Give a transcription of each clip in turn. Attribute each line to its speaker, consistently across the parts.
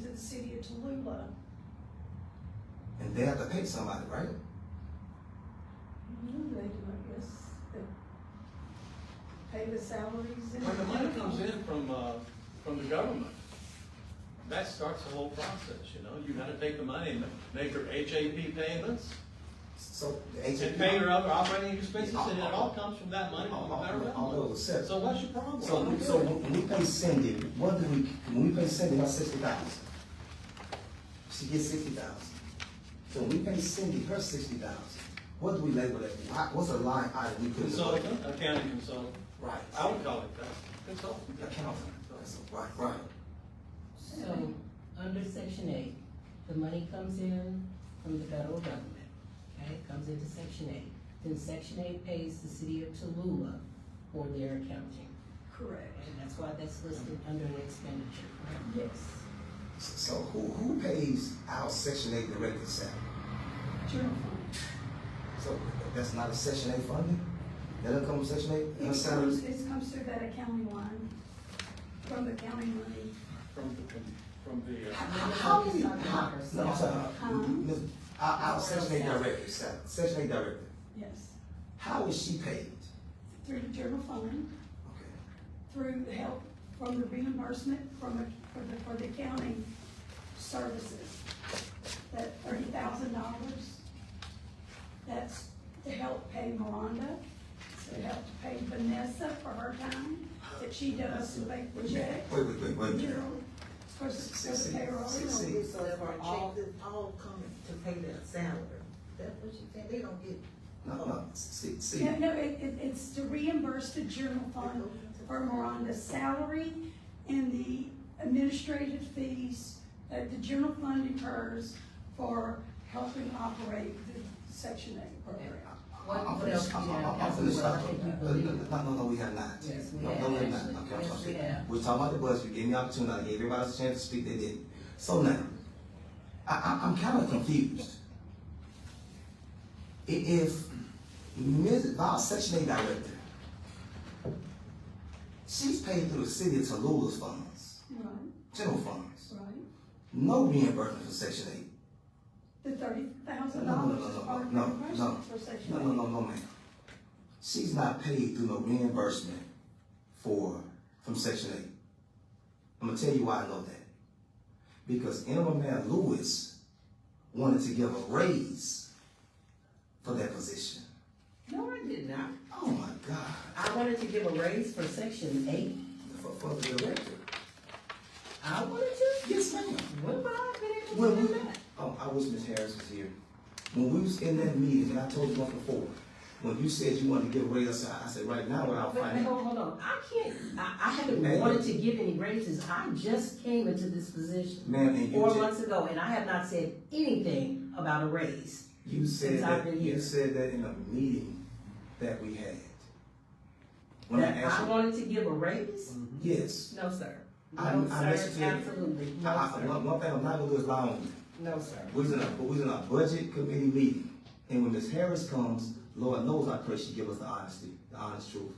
Speaker 1: to the city of Tallulah.
Speaker 2: And they have to pay somebody, right?
Speaker 1: Mm, They do, I guess, they pay the salaries and.
Speaker 3: When the money comes in from, uh, from the government, that starts the whole process, you know? You gotta take the money and make your HAP payments
Speaker 2: So the
Speaker 3: and
Speaker 2: HAP.
Speaker 3: pay your other operating expenses, and it all comes from that money from the
Speaker 2: All
Speaker 3: federal
Speaker 2: those
Speaker 3: government.
Speaker 2: sets.
Speaker 3: So what's your problem?
Speaker 2: So, we- so when we pay Cindy, what do we, when we pay Cindy, what's sixty thousand? She gets sixty thousand. So when we pay Cindy her sixty thousand, what do we label that? Why- What's a line item we put? in the budget?
Speaker 3: Consultant, accounting consultant,
Speaker 2: Right.
Speaker 3: I would call it that, consultant.
Speaker 2: Accountant, that's, right, right.
Speaker 4: So, under section eight, the money comes in from the federal government, okay, It comes into section eight. Then section eight pays the city of Tallulah for their accounting,
Speaker 1: Correct,
Speaker 4: and that's why that's listed under an expenditure. correct?
Speaker 1: yes.
Speaker 2: So who, who pays our section eight director salary?
Speaker 1: General fund.
Speaker 2: So that's not a section eight funding? That doesn't come from section eight? And her
Speaker 1: It
Speaker 2: salary-
Speaker 1: comes, it comes through that accounting line, from the county money.
Speaker 3: From, the- from, from the, uh,
Speaker 2: How many, how, no, I'm sorry,
Speaker 1: Huh?
Speaker 2: Ms. our, our section eight director, sir, section eight director,
Speaker 1: Yes,
Speaker 2: how is she paid?
Speaker 1: through the general fund,
Speaker 2: Okay,
Speaker 1: through the help, from the reimbursement from the, for the, for the accounting services. That thirty thousand dollars, that's to help pay Miranda, to help pay Vanessa for her time that she does to make the check.
Speaker 2: Wait, wait, wait, wait.
Speaker 1: You know, for, the- for the payroll.
Speaker 2: See, see.
Speaker 5: So they were all, all coming to pay their salary. That's what you think, they don't get.
Speaker 2: No, no, see, see,
Speaker 1: No, no, it, it, it's to reimburse the general fund for Miranda's salary and the administrative fees that the general fund incurs for helping operate the section eight program.
Speaker 4: What,
Speaker 2: I'm
Speaker 4: what else
Speaker 2: finished,
Speaker 4: do
Speaker 2: I'm,
Speaker 4: you
Speaker 2: I'm,
Speaker 4: have,
Speaker 2: I'm finished,
Speaker 4: Councilwoman? I
Speaker 2: stop.
Speaker 4: think you
Speaker 2: No,
Speaker 4: believe it.
Speaker 2: no, no, we have not.
Speaker 4: Yes, we
Speaker 2: No,
Speaker 4: have,
Speaker 2: no, we have not, okay,
Speaker 4: actually.
Speaker 2: I'm
Speaker 4: Yes, we
Speaker 2: sorry.
Speaker 4: have.
Speaker 2: We're talking about the budget, you gave me opportunity, I gave everybody a chance to speak, they didn't. So now, I, I, I'm kinda confused. I- If Ms., our section eight director, she's paid through the city of Tallulah's funds,
Speaker 1: Right,
Speaker 2: general funds,
Speaker 1: right.
Speaker 2: no reimbursement for section eight.
Speaker 1: The thirty thousand
Speaker 2: No, no,
Speaker 1: dollars
Speaker 2: no,
Speaker 1: is
Speaker 2: no,
Speaker 1: part of
Speaker 2: no,
Speaker 1: reimbursement for section
Speaker 2: No,
Speaker 1: eight.
Speaker 2: no, no, no, ma'am. She's not paid through no reimbursement for, from section eight. I'm gonna tell you why I know that. Because Emma Man Lewis wanted to give a raise for that position.
Speaker 5: No, I did not.
Speaker 2: Oh my God,
Speaker 4: I wanted to give a raise for section eight,
Speaker 2: for, for the director.
Speaker 4: I wanted to,
Speaker 2: Yes, ma'am.
Speaker 4: what would I have been
Speaker 2: When
Speaker 4: able
Speaker 2: we,
Speaker 4: to do that?
Speaker 2: oh, I wish Miss Harris was here. When we was in that meeting, and I told you once before, when you said you wanted to give a raise, I said, I said, right now, without
Speaker 4: But,
Speaker 2: finding.
Speaker 4: hold on, hold on, I can't, I, I haven't
Speaker 2: Ma'am.
Speaker 4: wanted to give any raises, I just came into this position.
Speaker 2: Ma'am, and you
Speaker 4: Four
Speaker 2: did-
Speaker 4: months ago, and I have not said anything about a raise.
Speaker 2: You said
Speaker 4: Since I've
Speaker 2: that,
Speaker 4: been
Speaker 2: you
Speaker 4: here.
Speaker 2: said that in a meeting that we had. When I
Speaker 4: That
Speaker 2: asked
Speaker 4: I
Speaker 2: you,
Speaker 4: wanted to give a raise?
Speaker 2: yes.
Speaker 4: No, sir.
Speaker 2: I-
Speaker 4: No,
Speaker 2: I
Speaker 4: sir,
Speaker 2: listened to you.
Speaker 4: absolutely,
Speaker 2: I,
Speaker 4: no,
Speaker 2: I,
Speaker 4: sir,
Speaker 2: one, one thing I'm not gonna do is lie on you.
Speaker 4: no, sir.
Speaker 2: We was in a, we was in a budget committee meeting, and when Ms. Harris comes, Lord knows I pray she give us the honesty, the honest truth.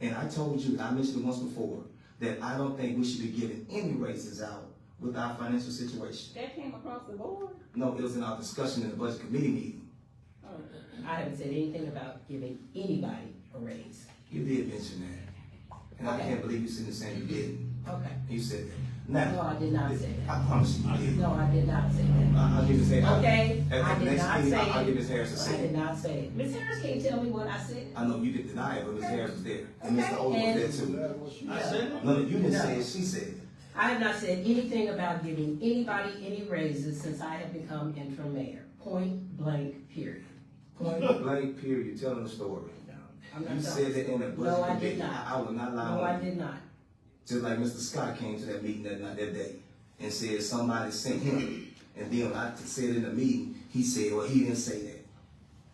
Speaker 2: And I told you, and I mentioned it once before, that I don't think we should be giving any raises out with our financial situation.
Speaker 4: That came across the board?
Speaker 2: No, it was in our discussion in the budget committee meeting.
Speaker 4: I haven't said anything about giving anybody a raise.
Speaker 2: You did mention that, and I
Speaker 4: Okay.
Speaker 2: can't believe you sitting there saying you didn't.
Speaker 4: Okay.
Speaker 2: You said that. Now,
Speaker 4: No, I did not say that.
Speaker 2: I promise you, you did.
Speaker 4: No, I did not say that.
Speaker 2: I- I'll give this Harris.
Speaker 4: Okay,
Speaker 2: At
Speaker 4: I
Speaker 2: the
Speaker 4: did
Speaker 2: next
Speaker 4: not
Speaker 2: meeting,
Speaker 4: say
Speaker 2: I'll- I'll
Speaker 4: it.
Speaker 2: give Ms. Harris a
Speaker 4: I did
Speaker 2: second.
Speaker 4: not say it. Ms. Harris can't tell me what I said.
Speaker 2: I know you didn't deny it, but Ms. Harris was there, and Mr. Old was there too.
Speaker 3: uh, I said, it.
Speaker 2: No, no, you didn't
Speaker 4: No.
Speaker 2: say it, she said it.
Speaker 4: I have not said anything about giving anybody any raises since I have become interim mayor. Point blank, period.
Speaker 2: Point blank, period, telling the story.
Speaker 4: No, I'm not
Speaker 2: You
Speaker 4: telling-
Speaker 2: said that in a
Speaker 4: No, I
Speaker 2: budget
Speaker 4: did
Speaker 2: committee.
Speaker 4: not.
Speaker 2: I I will not lie
Speaker 4: No, I
Speaker 2: on you.
Speaker 4: did not.
Speaker 2: Just like Mr. Scott came to that meeting that night, that day, and said somebody sent him. And then when I said in the meeting, he said, well, he didn't say that.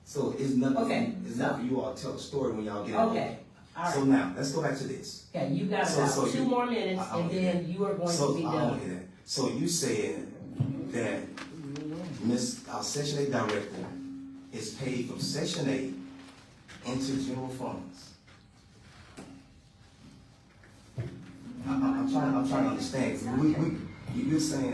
Speaker 2: So it's
Speaker 4: Okay,
Speaker 2: nothing, it's
Speaker 4: so-
Speaker 2: not for you all to tell a story when y'all get out.
Speaker 4: Okay, all
Speaker 2: So
Speaker 4: right.
Speaker 2: now, let's go back to this.
Speaker 4: Okay, you got
Speaker 2: So- so
Speaker 4: about
Speaker 2: you-
Speaker 4: two more minutes
Speaker 2: I- I
Speaker 4: and
Speaker 2: don't hear
Speaker 4: then you are going
Speaker 2: So,
Speaker 4: to be
Speaker 2: I don't
Speaker 4: done.
Speaker 2: hear that. So you said that Miss, our section eight director is paid from section eight into general funds? I, I- I'm trying, I'm trying to understand, 'cause we, we, You- You're saying